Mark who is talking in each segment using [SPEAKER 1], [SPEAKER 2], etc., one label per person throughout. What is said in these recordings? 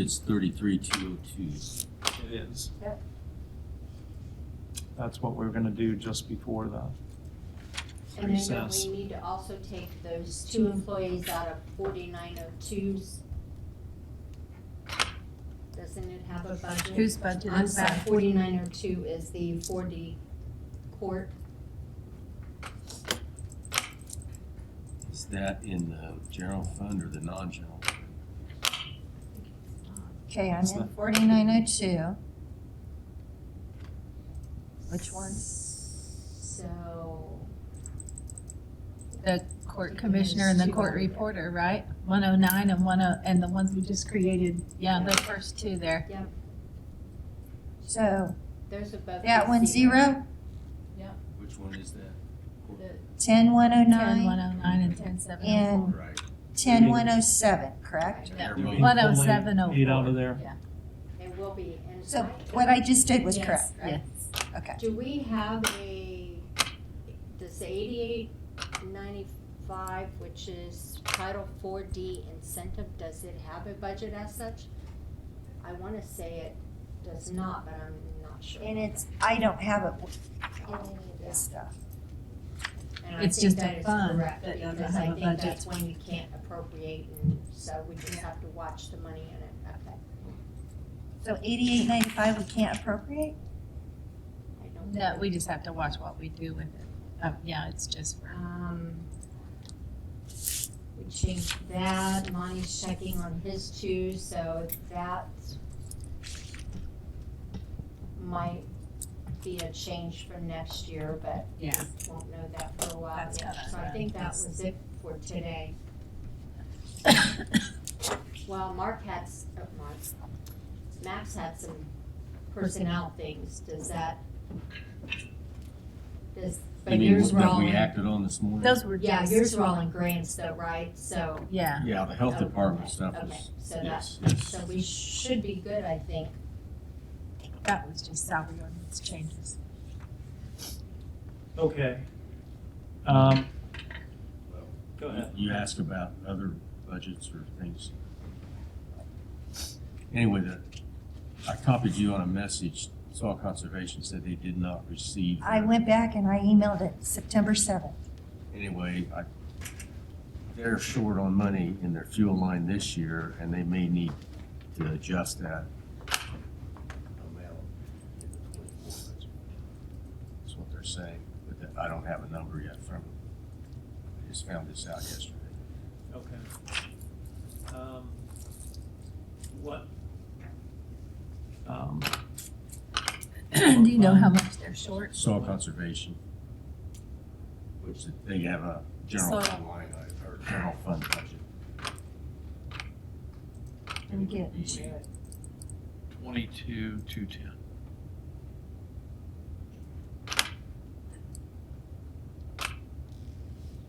[SPEAKER 1] It's thirty-three, two oh two.
[SPEAKER 2] It is.
[SPEAKER 3] Yep.
[SPEAKER 2] That's what we were gonna do just before the
[SPEAKER 3] And then
[SPEAKER 2] recess.
[SPEAKER 3] we need to also take those two
[SPEAKER 4] Hmm.
[SPEAKER 3] employees out of forty-nine oh twos. Doesn't it have a budget?
[SPEAKER 4] Whose budget
[SPEAKER 3] I'm
[SPEAKER 4] is
[SPEAKER 3] sorry,
[SPEAKER 4] that?
[SPEAKER 3] forty-nine oh two is the four D court.
[SPEAKER 1] Is that in the general fund or the non-general?
[SPEAKER 4] Okay, I'm
[SPEAKER 2] It's
[SPEAKER 4] in
[SPEAKER 2] not-
[SPEAKER 4] forty-nine oh two. Which one?
[SPEAKER 3] So,
[SPEAKER 4] The court commissioner and the court reporter, right? One oh nine and one oh, and the ones we just created, yeah, the first two there.
[SPEAKER 3] Yep.
[SPEAKER 4] So
[SPEAKER 3] those are both.
[SPEAKER 4] that
[SPEAKER 3] the
[SPEAKER 4] one zero,
[SPEAKER 1] Which one is that?
[SPEAKER 3] The-
[SPEAKER 4] ten one oh ten one nine, oh nine and ten seven oh
[SPEAKER 1] All
[SPEAKER 4] four. And-
[SPEAKER 1] right.
[SPEAKER 4] ten one oh seven, correct?
[SPEAKER 1] So
[SPEAKER 4] Yeah.
[SPEAKER 1] they're
[SPEAKER 2] Did we
[SPEAKER 1] both-
[SPEAKER 4] One oh seven oh
[SPEAKER 2] pull Eight eight out
[SPEAKER 4] four.
[SPEAKER 2] of there.
[SPEAKER 3] It will be, and.
[SPEAKER 4] So what I just did was
[SPEAKER 3] Yes,
[SPEAKER 4] correct, right?
[SPEAKER 3] yes.
[SPEAKER 4] Okay.
[SPEAKER 3] Do we have a, does eighty-eight ninety-five, which is Title Four D incentive, does it have a budget as such? I wanna say it does not, but I'm not sure.
[SPEAKER 4] And it's, I don't have it in any of this stuff.
[SPEAKER 3] And I
[SPEAKER 4] it's
[SPEAKER 3] think
[SPEAKER 4] just a
[SPEAKER 3] that is
[SPEAKER 4] fund
[SPEAKER 3] correct,
[SPEAKER 4] that doesn't
[SPEAKER 3] because I
[SPEAKER 4] have a
[SPEAKER 3] think
[SPEAKER 4] budget.
[SPEAKER 3] that's when you can't appropriate, and so we just have to watch the money in it, okay?
[SPEAKER 4] So eighty-eight ninety-five, we can't appropriate?
[SPEAKER 3] I don't
[SPEAKER 4] No, we just have to watch what we do with it. Oh, yeah, it's just for.
[SPEAKER 3] Um, we changed that, Monty's checking on his too, so that might be a change for next year, but
[SPEAKER 4] Yeah.
[SPEAKER 3] won't know that for a while
[SPEAKER 4] That's
[SPEAKER 3] yet.
[SPEAKER 4] gotta-
[SPEAKER 3] So I think that was it for today. Well, Mark had, s- oh, Mark, Max had some personnel things, does that? Does,
[SPEAKER 1] You
[SPEAKER 3] but
[SPEAKER 1] mean
[SPEAKER 3] yours were
[SPEAKER 1] that
[SPEAKER 3] all.
[SPEAKER 1] we
[SPEAKER 3] in-
[SPEAKER 1] acted on this morning?
[SPEAKER 4] Those were
[SPEAKER 3] Yeah,
[SPEAKER 4] just,
[SPEAKER 3] yours were all in grants though, right? So,
[SPEAKER 4] yeah.
[SPEAKER 1] Yeah, the health
[SPEAKER 3] Oh,
[SPEAKER 1] department
[SPEAKER 3] okay,
[SPEAKER 1] stuff
[SPEAKER 3] okay.
[SPEAKER 1] was,
[SPEAKER 3] So that-
[SPEAKER 1] yes,
[SPEAKER 3] so
[SPEAKER 1] yes.
[SPEAKER 3] we should be good, I think.
[SPEAKER 4] That was just salary ordinance changes.
[SPEAKER 2] Okay. Um,
[SPEAKER 1] Well,
[SPEAKER 2] go ahead.
[SPEAKER 1] You asked about other budgets or things. Anyway, that, I copied you on a message, Soil Conservation said they did not receive.
[SPEAKER 4] I
[SPEAKER 1] their-
[SPEAKER 4] went back and I emailed it September seventh.
[SPEAKER 1] anyway, I, they're short on money in their fuel line this year, and they may need to adjust that amount in the 24 budget. That's what they're saying, but that- I don't have a number yet from them. I just found this out yesterday.
[SPEAKER 2] Okay. Um, What? Um,
[SPEAKER 4] Do you know how much they're short?
[SPEAKER 1] Soil conservation, which they have a general fund line, item, or general fund budget.
[SPEAKER 4] Didn't get
[SPEAKER 1] It would be-
[SPEAKER 4] it.
[SPEAKER 5] Twenty-two, two ten.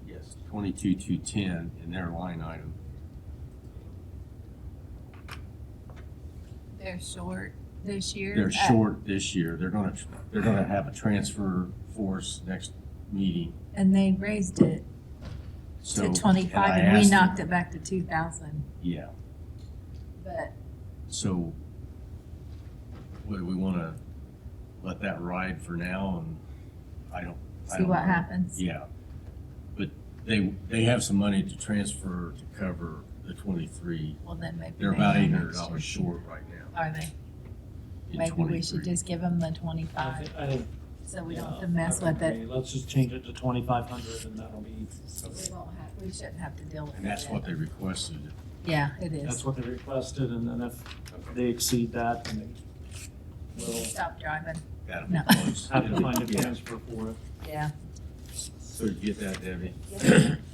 [SPEAKER 1] Yes, twenty-two, two ten in their line item.
[SPEAKER 4] They're short this year?
[SPEAKER 1] They're
[SPEAKER 4] Uh,
[SPEAKER 1] short this year. They're gonna, they're gonna have a transfer force next meeting,
[SPEAKER 4] And they raised it
[SPEAKER 1] so.
[SPEAKER 4] to
[SPEAKER 1] and I
[SPEAKER 4] twenty-five and we
[SPEAKER 1] asked them-
[SPEAKER 4] knocked it back to two thousand.
[SPEAKER 1] Yeah,
[SPEAKER 4] But
[SPEAKER 1] so what, do we wanna let that ride for now and I don't. I
[SPEAKER 4] see
[SPEAKER 1] don't
[SPEAKER 4] what
[SPEAKER 1] know.
[SPEAKER 4] happens.
[SPEAKER 1] Yeah, but they, they have some money to transfer to cover the twenty-three.
[SPEAKER 4] Well, then maybe.
[SPEAKER 1] They're
[SPEAKER 4] they
[SPEAKER 1] about
[SPEAKER 4] have
[SPEAKER 1] eight hundred
[SPEAKER 4] next
[SPEAKER 1] dollars
[SPEAKER 4] year.
[SPEAKER 1] short right now.
[SPEAKER 4] Are they?
[SPEAKER 1] in
[SPEAKER 4] Maybe we should
[SPEAKER 1] 23.
[SPEAKER 4] just give them the
[SPEAKER 2] I
[SPEAKER 4] twenty-five
[SPEAKER 2] think, I think.
[SPEAKER 4] so we don't
[SPEAKER 2] yeah,
[SPEAKER 4] have to mess
[SPEAKER 2] I would
[SPEAKER 4] with it.
[SPEAKER 2] agree. Let's just change it to twenty-five hundred and that'll be,
[SPEAKER 4] We won't have, we shouldn't have to deal with it.
[SPEAKER 1] And that's what they requested.
[SPEAKER 4] Yeah, it
[SPEAKER 2] that's
[SPEAKER 4] is.
[SPEAKER 2] what they requested and then if they exceed that, then they will
[SPEAKER 4] Stop driving.
[SPEAKER 1] That'll be
[SPEAKER 4] No.
[SPEAKER 1] close.
[SPEAKER 2] have to find a
[SPEAKER 1] Yeah.
[SPEAKER 2] transfer for it.
[SPEAKER 4] Yeah.
[SPEAKER 1] So you get that, Debbie?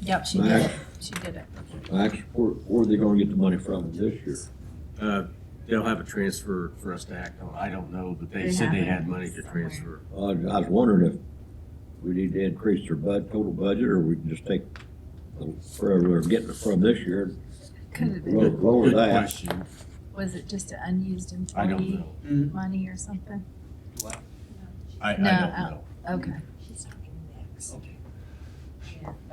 [SPEAKER 4] Yep, she did it. She did it.
[SPEAKER 6] Actually, where, where are they gonna get the money from this year?
[SPEAKER 1] Uh, They'll have a transfer for us to act on. I don't know, but they
[SPEAKER 4] They
[SPEAKER 1] said they
[SPEAKER 4] have it
[SPEAKER 1] had money to
[SPEAKER 4] somewhere.
[SPEAKER 1] transfer.
[SPEAKER 6] I, was- I was wondering if we need to increase their bud, total budget, or we can just take the- wherever they're getting it from this year,
[SPEAKER 4] Could have been,
[SPEAKER 6] Well,
[SPEAKER 1] Good-
[SPEAKER 6] lower
[SPEAKER 1] good
[SPEAKER 6] that.
[SPEAKER 1] question.
[SPEAKER 4] was it just an unused
[SPEAKER 1] I don't
[SPEAKER 4] employee
[SPEAKER 1] know.
[SPEAKER 4] money or something?
[SPEAKER 1] I, I don't
[SPEAKER 4] No, uh,
[SPEAKER 1] know.
[SPEAKER 4] Okay. She's talking next.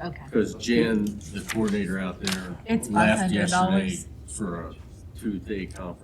[SPEAKER 4] Okay,
[SPEAKER 1] Because Jen, the coordinator out there,
[SPEAKER 4] It's
[SPEAKER 1] left
[SPEAKER 4] $500.
[SPEAKER 1] yesterday for a two-day conference.